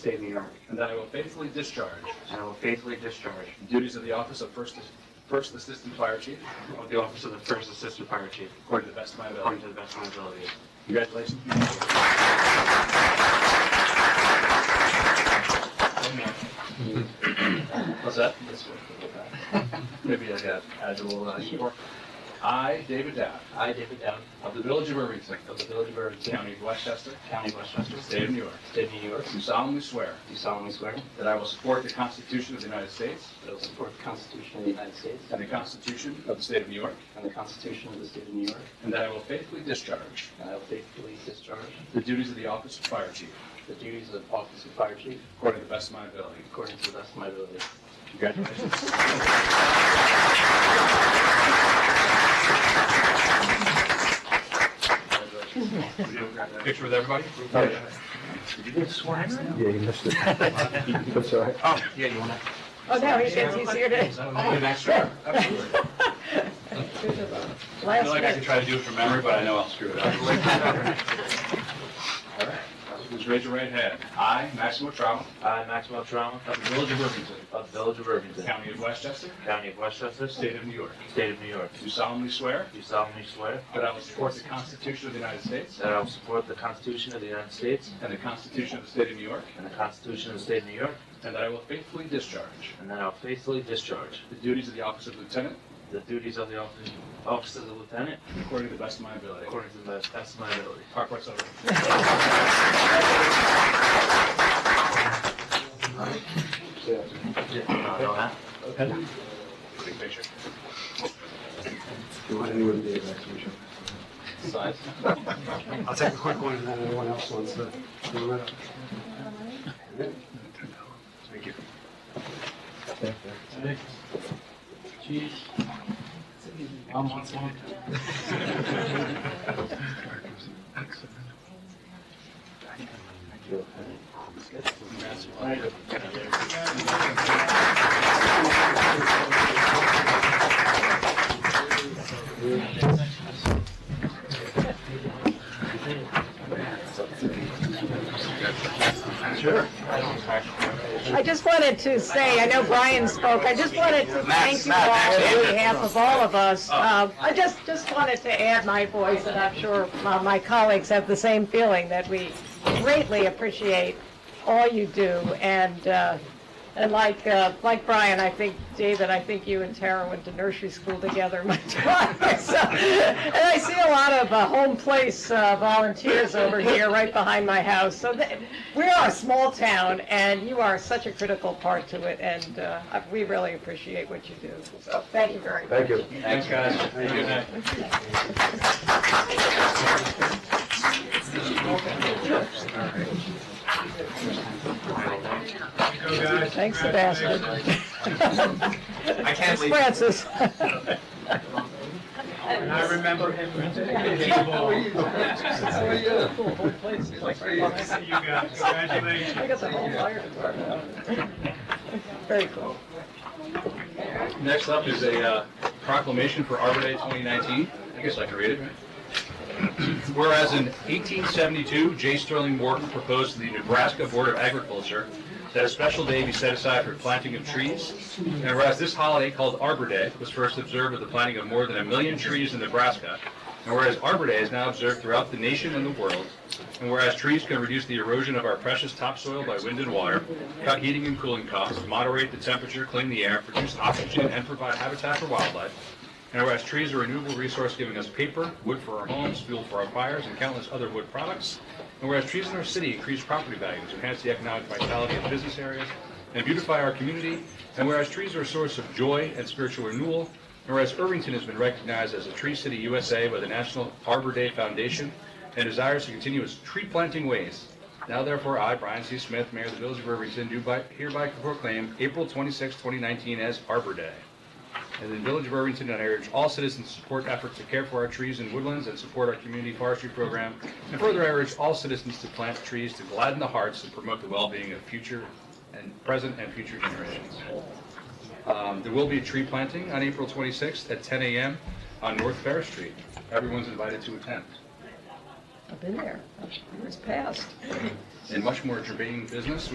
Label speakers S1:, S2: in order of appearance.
S1: year,
S2: and that I will faithfully discharge
S1: and I will faithfully discharge
S2: the duties of the office of First First Assistant Fire Chief
S1: of the office of the First Assistant Fire Chief
S2: according to the best of my ability.
S1: according to the best of my ability.
S2: Congratulations.
S1: Mm-hmm.
S2: What's that? This way. Maybe I got agile. uh, humor. I, David Dow,
S1: I, David Down,
S2: of the Village of Irvington,
S1: of the Village of Irvington,
S2: County of Westchester,
S1: County of Westchester,
S2: State of New York,
S1: State of New York,
S2: do solemnly swear
S1: do solemnly swear that
S2: that I will support the Constitution of the United States
S1: I will support the Constitution of the United States
S2: and the Constitution of the State of New York,
S1: and the Constitution of the State of New York,
S2: and that I will faithfully discharge
S1: and I will faithfully discharge
S2: the duties of the office of Fire Chief
S1: the duties of Office of Fire Chief
S2: according to the best of my ability.
S1: according to the best of my ability.
S2: Congratulations. Picture with everybody?
S3: Yeah, you missed it. I'm sorry.
S4: Oh, no, he gets, he's here to,
S2: Absolutely. I feel like I
S4: last
S2: could
S4: minute.
S2: try to do it from memory, but I know I'll screw it up. All right. Just raise your right hand. I, Maximo Trauma,
S5: I, Maxwell Trauma,
S2: of the Village of Irvington,
S5: of the Village of Irvington,
S2: County of Westchester,
S5: County of Westchester,
S2: State of New York,
S5: State of New York,
S2: do solemnly swear
S5: do solemnly swear
S2: that I will support the Constitution of the United States
S5: that I will support the Constitution of the United States
S2: and the Constitution of the State of New York,
S5: and the Constitution of the State of New York,
S2: and that I will faithfully discharge
S5: and that I will faithfully discharge
S2: the duties of the office of lieutenant
S5: the duties of the office office of the Lieutenant
S2: according to the best of my ability.
S5: according to the best of my ability.
S2: Park what's over.
S5: Uh,
S2: Big picture.
S3: You want anyone to be a vaccination?
S2: Size.
S3: I'll take a quick one, and then anyone else wants to.
S2: Thank you.
S4: I just wanted to say, I know Brian spoke, I just wanted to thank you all on behalf of all of us. Uh, I just, just wanted to add my voice, and I'm sure uh, my colleagues have the same feeling, that we greatly appreciate all you do, and, uh, and like, uh, like Brian, I think, David, I think you and Tara went to nursery school together much twice. So, And I see a lot of uh, home place uh, volunteers over here, right behind my house. So th- we are a small town, and you are such a critical part to it, and uh, I- we really appreciate what you do. So thank you very much.
S3: Thank you.
S2: Thanks, guys. Have a good night.
S4: Thanks, Sebastian.
S6: I can't leave.
S4: Francis.
S6: And I remember him. Thank you guys, congratulations.
S4: We got the whole fire department. Very cool.
S2: Next up is a uh, proclamation for Arbor Day 2019. I guess I can read it. Whereas in 1872, J. Sterling Morton proposed to the Nebraska Board of Agriculture that a special day be set aside for planting of trees. And whereas this holiday called Arbor Day was first observed with the planting of more than a million trees in Nebraska. And whereas Arbor Day is now observed throughout the nation and the world. And whereas trees can reduce the erosion of our precious topsoil by wind and water, cut heating and cooling costs, moderate the temperature, clean the air, produce oxygen, and provide habitat for wildlife. And whereas trees are a renewable resource giving us paper, wood for our homes, fuel for our fires, and countless other wood products. And whereas trees in our city increase property values, enhance the economic vitality of business areas, and beautify our community. And whereas trees are a source of joy and spiritual renewal. And whereas Irvington has been recognized as a Tree City USA by the National Arbor Day Foundation and desires to continue its tree planting ways. Now therefore, I, Brian C. Smith, Mayor of the Village of Irvington, do by- hereby proclaim April 26, 2019 as Arbor Day. And the Village of Irvington, I urge all citizens to support efforts to care for our trees and woodlands and support our community forestry program. And further, I urge all citizens to plant trees to gladden the hearts and promote the well-being of future and present and future generations. Um, There will be a tree planting on April 26th at 10 a.m. on North Fair Street. Everyone's invited to attend.
S4: I've been there. It's passed.
S2: And much more germane business,